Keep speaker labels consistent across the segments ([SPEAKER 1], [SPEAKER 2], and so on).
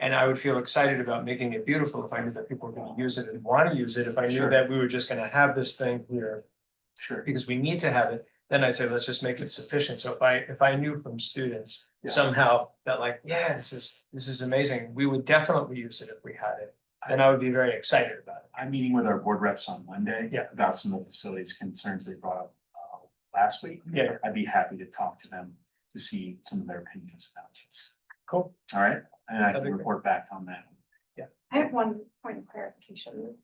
[SPEAKER 1] And I would feel excited about making it beautiful if I knew that people were gonna use it and wanna use it, if I knew
[SPEAKER 2] Sure.
[SPEAKER 1] that we were just gonna have this thing here.
[SPEAKER 2] Sure.
[SPEAKER 1] Because we need to have it, then I'd say, let's just make it sufficient, so if I, if I knew from students
[SPEAKER 2] Yeah.
[SPEAKER 1] somehow that like, yeah, this is, this is amazing, we would definitely use it if we had it. Then I would be very excited about it.
[SPEAKER 2] I'm meeting with our board reps on Monday.
[SPEAKER 1] Yeah.
[SPEAKER 2] About some of the facilities concerns they brought up uh last week.
[SPEAKER 1] Yeah.
[SPEAKER 2] I'd be happy to talk to them to see some of their opinions about this.
[SPEAKER 1] Cool.
[SPEAKER 2] All right, and I
[SPEAKER 1] That'd be
[SPEAKER 2] can
[SPEAKER 1] great.
[SPEAKER 2] report back on that.
[SPEAKER 3] I have one point of clarification.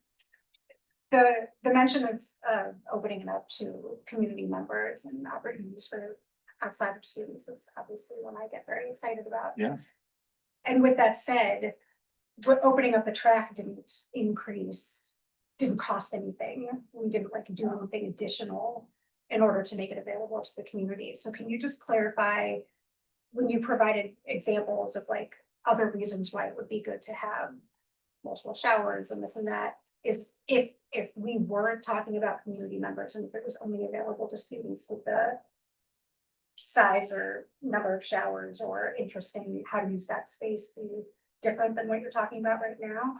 [SPEAKER 3] The, the mention of, of opening it up to community members and opportunities for outside of students is obviously one I get very excited about.
[SPEAKER 2] Yeah.
[SPEAKER 3] And with that said, what, opening up the track didn't increase, didn't cost anything. We didn't like do anything additional in order to make it available to the community. So can you just clarify when you provided examples of like other reasons why it would be good to have multiple showers and this and that is if, if we weren't talking about community members and if it was only available to students with the size or number of showers or interesting how to use that space be different than what you're talking about right now?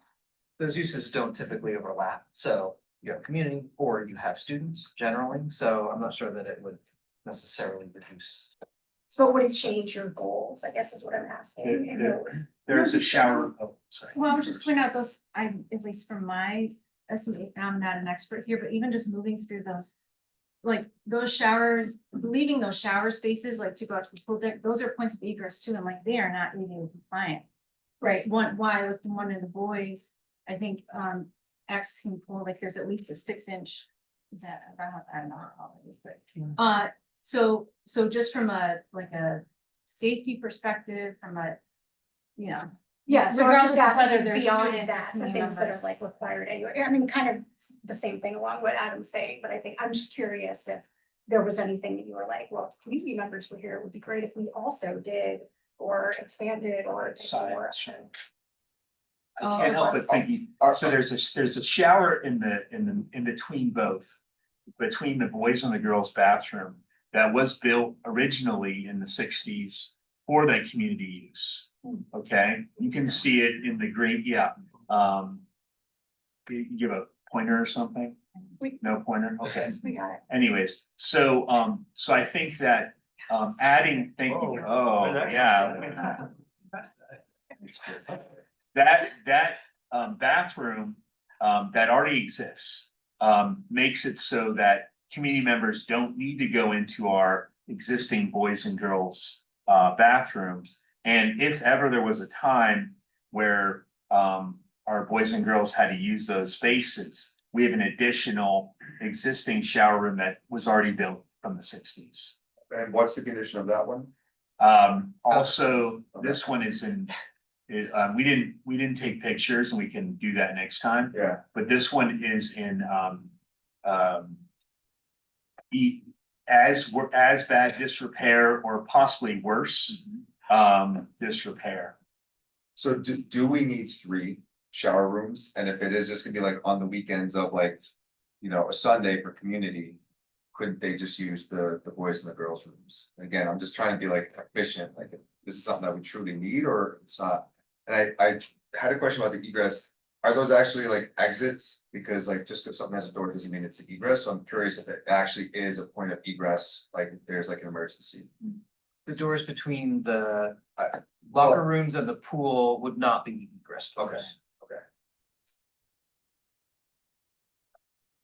[SPEAKER 4] those uses don't typically overlap, so you have community or you have students generally, so I'm not sure that it would necessarily reduce.
[SPEAKER 3] So would it change your goals, I guess is what I'm asking. and
[SPEAKER 2] Yeah,
[SPEAKER 3] your-
[SPEAKER 2] There's a shower, oh, sorry.
[SPEAKER 5] Well, I would just point out those, I, at least from my estimate, and I'm not an expert here, but even just moving through those. Like those showers, leaving those shower spaces like to go out to the pool deck, those are points of egress too, and like they are not ADA compliant.
[SPEAKER 3] Right,
[SPEAKER 5] One, why I looked in one of the boys, I think, um, accessing pool, like there's at least a six inch. Is that, about- I don't know how it is, but,
[SPEAKER 4] Yeah.
[SPEAKER 5] uh, so, so just from a, like a safety perspective, from a. You know,
[SPEAKER 3] Yeah, so I'm just
[SPEAKER 5] regardless of whether
[SPEAKER 3] asking
[SPEAKER 5] they're
[SPEAKER 3] beyond
[SPEAKER 5] student or
[SPEAKER 3] that, the
[SPEAKER 5] community
[SPEAKER 3] things that are
[SPEAKER 5] members.
[SPEAKER 3] like required anyway, I mean, kind of the same thing along what Adam's saying, but I think, I'm just curious if there was anything that you were like, well, if community members were here, it would be great if we also did, or expanded, or. did more.
[SPEAKER 2] Sides. I can't help but uh, thinking,
[SPEAKER 6] Are-
[SPEAKER 2] so there's a, there's a shower in the, in the, in between both. Between the boys and the girls bathroom that was built originally in the sixties for that community use. Okay, you can see it in the green, yeah, um. You you give a pointer or something?
[SPEAKER 3] We-
[SPEAKER 2] No pointer, okay,
[SPEAKER 3] We got it,
[SPEAKER 2] anyways, so, um, so I think that, um, adding, thank you,
[SPEAKER 1] Whoa.
[SPEAKER 2] oh, yeah. That, that, um, bathroom, um, that already exists, um, makes it so that community members don't need to go into our existing boys and girls, uh, bathrooms. And if ever there was a time where, um, our boys and girls had to use those spaces, we have an additional existing shower room that was already built from the sixties.
[SPEAKER 6] And what's the condition of that one?
[SPEAKER 2] Um,
[SPEAKER 6] Oh,
[SPEAKER 2] also, this one is in, is, uh, we didn't, we didn't take pictures and we can do that next time,
[SPEAKER 6] Yeah,
[SPEAKER 2] but this one is in, um, um. E, as, wor- as bad disrepair or possibly worse,
[SPEAKER 6] Mm-hmm.
[SPEAKER 2] um, disrepair.
[SPEAKER 6] so do, do we need three shower rooms? And if it is just gonna be like on the weekends of like, you know, a Sunday for community, couldn't they just use the, the boys and the girls rooms? Again, I'm just trying to be like efficient, like if this is something that we truly need or it's not. And I, I had a question about the egress. Are those actually like exits? Because like just because something has a door doesn't mean it's an egress. So I'm curious if it actually is a point of egress, like if there's like an emergency.
[SPEAKER 4] The doors between the locker rooms and the pool would not be egress doors.
[SPEAKER 6] Okay.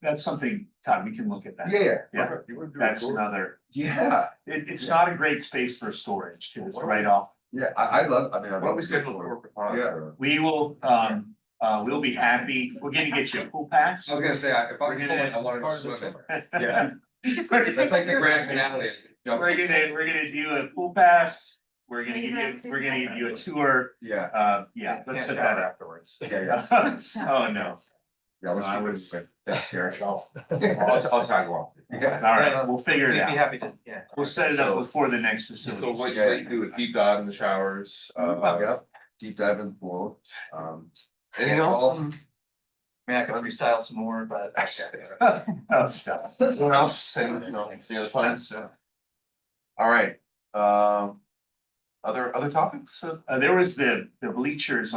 [SPEAKER 2] That's something, Todd, we can look at that.
[SPEAKER 6] Yeah, yeah.
[SPEAKER 2] Yeah.
[SPEAKER 6] Okay, you would do it.
[SPEAKER 2] That's another,
[SPEAKER 6] Yeah.
[SPEAKER 2] it, it's
[SPEAKER 6] Yeah.
[SPEAKER 2] not a great space for storage, 'cause it's right off
[SPEAKER 6] Yeah, I, I love, I mean. I
[SPEAKER 4] Why don't we
[SPEAKER 6] love
[SPEAKER 4] schedule a
[SPEAKER 6] skateboard.
[SPEAKER 4] corporate
[SPEAKER 6] Yeah,
[SPEAKER 2] We will, um, uh, we'll be happy, we're gonna get you a pool pass.
[SPEAKER 6] I was gonna say, I- if I
[SPEAKER 2] We're
[SPEAKER 6] were going
[SPEAKER 2] gonna-
[SPEAKER 6] I wanted to
[SPEAKER 1] part of the
[SPEAKER 6] swim.
[SPEAKER 2] Yeah.
[SPEAKER 6] That's like the grand finale.
[SPEAKER 2] We're gonna, we're gonna do a pool pass, we're gonna give you, we're gonna give you a tour,
[SPEAKER 6] Yeah,
[SPEAKER 2] uh, yeah, let's set that up.
[SPEAKER 4] afterwards.
[SPEAKER 6] yeah, yeah,
[SPEAKER 2] Oh, no,
[SPEAKER 6] yeah, let's
[SPEAKER 2] No, I
[SPEAKER 6] do
[SPEAKER 2] would-
[SPEAKER 6] this, like, that's here.
[SPEAKER 4] I'll-
[SPEAKER 6] Yeah.
[SPEAKER 4] I'll tag along.
[SPEAKER 2] alright, we'll figure
[SPEAKER 4] You'd be
[SPEAKER 2] it out,
[SPEAKER 4] happy to, yeah.
[SPEAKER 2] we'll set it up before the next
[SPEAKER 7] So
[SPEAKER 2] facility.
[SPEAKER 7] what you like to do with deep dive in the showers,
[SPEAKER 6] Uh,
[SPEAKER 7] uh,
[SPEAKER 6] yeah, deep dive in the pool, um.
[SPEAKER 4] Anything else?
[SPEAKER 6] Well,
[SPEAKER 4] I mean, I could freestyle some more, but.
[SPEAKER 2] Oh, stuff.
[SPEAKER 7] Someone else and, you know, see other plans. All right, um. Other, other topics?
[SPEAKER 2] Uh, there was the, the bleachers